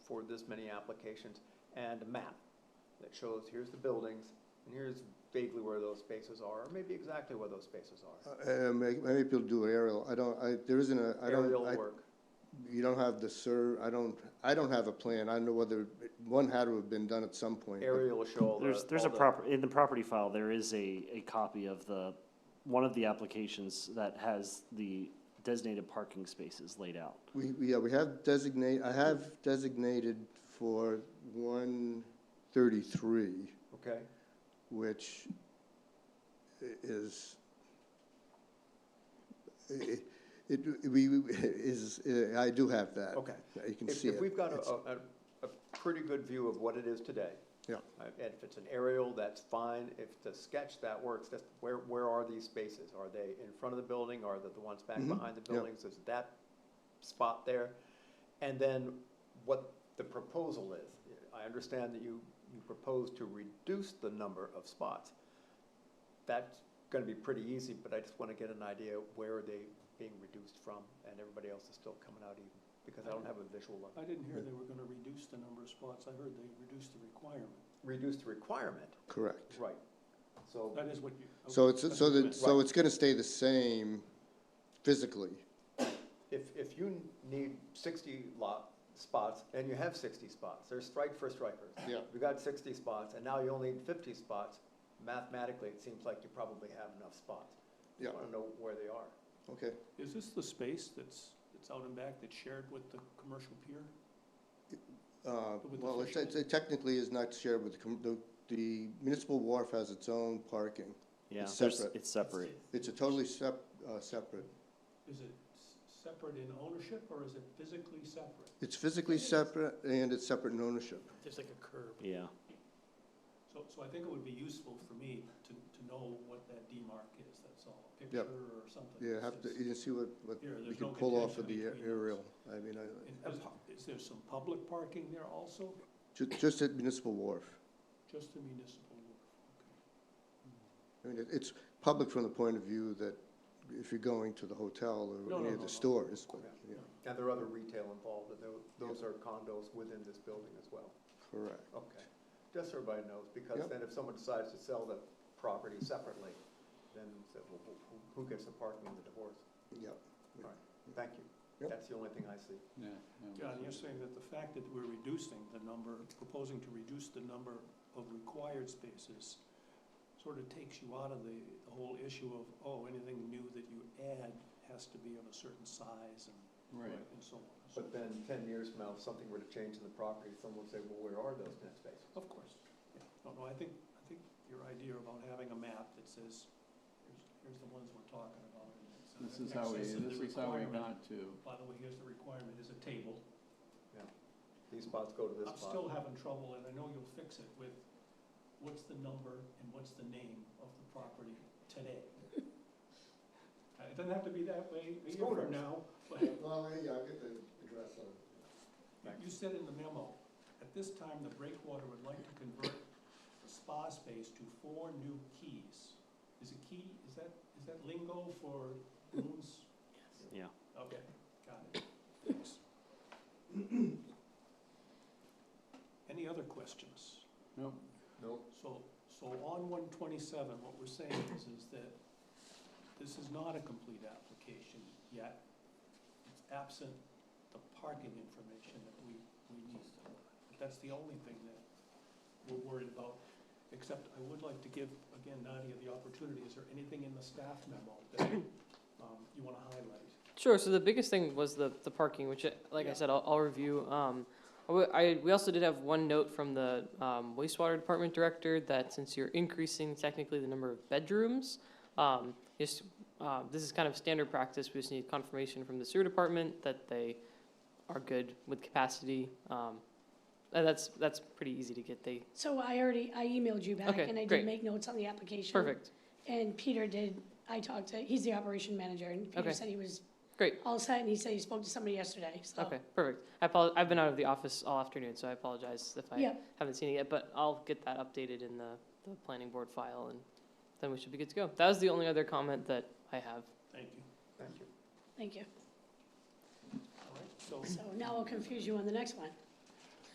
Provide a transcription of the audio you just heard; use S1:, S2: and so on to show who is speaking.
S1: for this many applications, and a map that shows here's the buildings, and here's vaguely where those spaces are, or maybe exactly where those spaces are.
S2: Uh, may- Maybe people do aerial, I don't, I, there isn't a, I don't.
S1: Aerial
S2: I-
S1: work.
S2: You don't have the sur, I don't, I don't have a plan, I don't know whether, one had to have been done at some point. but-
S1: Aerial will show all the.
S3: There's, there's
S1: all
S3: a
S1: the-
S3: proper, in the property file, there is a, a copy of the, one of the applications that has the designated parking spaces laid out.
S2: We, we- yeah, we have designate, I have designated for one thirty-three,
S1: Okay,
S2: which i- is, i- it, we, we- is, uh, I do have that.
S1: okay.
S2: Yeah, You can
S1: If,
S2: see it.
S1: if we've got a,
S2: It's-
S1: a, a pretty good view of what it is today.
S2: Yeah.
S1: uh, And if it's an aerial, that's fine. If it's a sketch, that works. That's, where, where are these spaces? Are they in front of the building? Are they the ones back
S2: Mhm,
S1: behind the
S2: yeah.
S1: buildings? Is that spot there? And then what the proposal is. I understand that you, you propose to reduce the number of spots. That's gonna be pretty easy, but I just wanna get an idea where are they being reduced from? And everybody else is still coming out even, because I don't have a visual of,
S4: I didn't hear they were gonna reduce the number of spots, I heard they reduced the requirement.
S1: reduce the requirement.
S2: Correct.
S1: Right. So.
S4: That is what you.
S2: So
S4: okay,
S2: it's,
S4: that's
S2: so
S4: what you
S2: that,
S4: meant.
S2: so it's gonna stay the same physically.
S1: If, if you need sixty lot, spots, and you have sixty spots, there's strike for strikers.
S2: Yeah.
S1: You got sixty spots, and now you only need fifty spots, mathematically, it seems like you probably have enough spots.
S2: Yeah,
S1: I wanna know where they are.
S2: okay.
S4: Is this the space that's, that's out and back that's shared with the commercial pier?
S2: Uh,
S4: With the
S2: Well, it's-
S4: fishermen.
S2: it technically is not shared with, the com- the the municipal wharf has its own parking.
S3: Yeah,
S2: It's
S3: there's-
S2: separate.
S3: it's separate.
S2: It's a totally sep, uh, separate,
S4: Is it s- separate in ownership or is it physically separate?
S2: it's physically separate and it's separate in ownership.
S4: There's like a curb.
S3: Yeah,
S4: So, so I think it would be useful for me to, to know what that demarc is, that's all, a
S2: Yep.
S4: picture or something.
S2: You have to, you can see what, what
S4: Yeah,
S2: we
S4: there's
S2: can
S4: no
S2: pull off of the
S4: contention
S2: a-
S4: between those.
S2: aerial. I mean, I,
S4: And Is is there some public parking there also,
S2: ju- just at municipal wharf.
S4: just the municipal? okay.
S2: I mean, it- it's public from the point of view that if you're going to the hotel
S4: no,
S2: or any
S4: no,
S2: of
S4: no.
S2: the stores, but,
S1: Okay.
S2: yeah,
S1: And there are other retail involved, and tho- those are condos within this building as well.
S2: correct.
S1: Okay, just so everybody knows, because
S2: Yep.
S1: then if someone decides to sell the property separately, then so who- who- who gets the parking in the divorce?
S2: Yeah,
S1: Thank you.
S2: Yep.
S1: That's the only thing I see.
S4: John, you're saying that the fact that we're reducing the number, proposing to reduce the number of required spaces sort of takes you out of the, the whole issue of, oh, anything new that you add has to be of a certain size and,
S1: Right.
S4: and so on. and so
S1: But then ten years from now, if something were to change in the property, someone would say, well, where are those ten spaces?
S4: Of course, yeah. No, no, I think, I think your idea about having a map that says, here's, here's the ones we're talking about. and it's in
S5: This is how we,
S4: excess of the
S5: this is how we
S4: requirement.
S5: got to,
S4: By the way, here's the requirement, is a table.
S1: These spots go to this
S4: I'm
S1: spot.
S4: still having trouble, and I know you'll fix it with, what's the number and what's the name of the property today? Uh, It doesn't have to be that way a year
S1: Scooters.
S4: from now, but
S2: Well, yeah, I'll get the address on it.
S4: you said in the memo, at this time, the breakwater would like to convert the spa space to four new keys. Is a key, is that, is that lingo for rooms?
S3: yeah.
S4: Okay, got it. Thanks. Any other questions?
S5: no,
S1: Nope.
S4: So, so on one twenty-seven, what we're saying is, is that this is not a complete application yet. It's absent the parking information that we, we need. That's the only thing that we're worried about, except I would like to give, again, Nadia the opportunity, is there anything in the staff memo that, um, you wanna highlight?
S6: Sure. So the biggest thing was the, the parking, which, I- like
S4: Yeah.
S6: I said, I'll, I'll review. Um, I w- I, we also did have one note from the um, wastewater department director that since you're increasing technically the number of bedrooms, um, just, uh, this is kind of standard practice. We just need confirmation from the sewer department that they are good with capacity. Um, and that's that's pretty easy to get. They
S7: So I already, I emailed you back,
S6: Okay,
S7: and I
S6: great.
S7: did make notes on the application.
S6: perfect.
S7: And Peter did, I talked to, he's the operation manager, and Peter
S6: Okay.
S7: said he was.
S6: Great.
S7: All set, and he said he spoke to somebody yesterday, so.
S6: Okay, perfect. I apol- I've been out of the office all afternoon, so I apologize if I
S7: Yeah.
S6: haven't seen it yet, but I'll get that updated in the, the planning board file and then we should be good to go. That was the only other comment that I have.
S4: Thank you.
S1: Thank you.
S7: Thank you.
S4: All right, so
S7: So now I'll confuse you on the next one.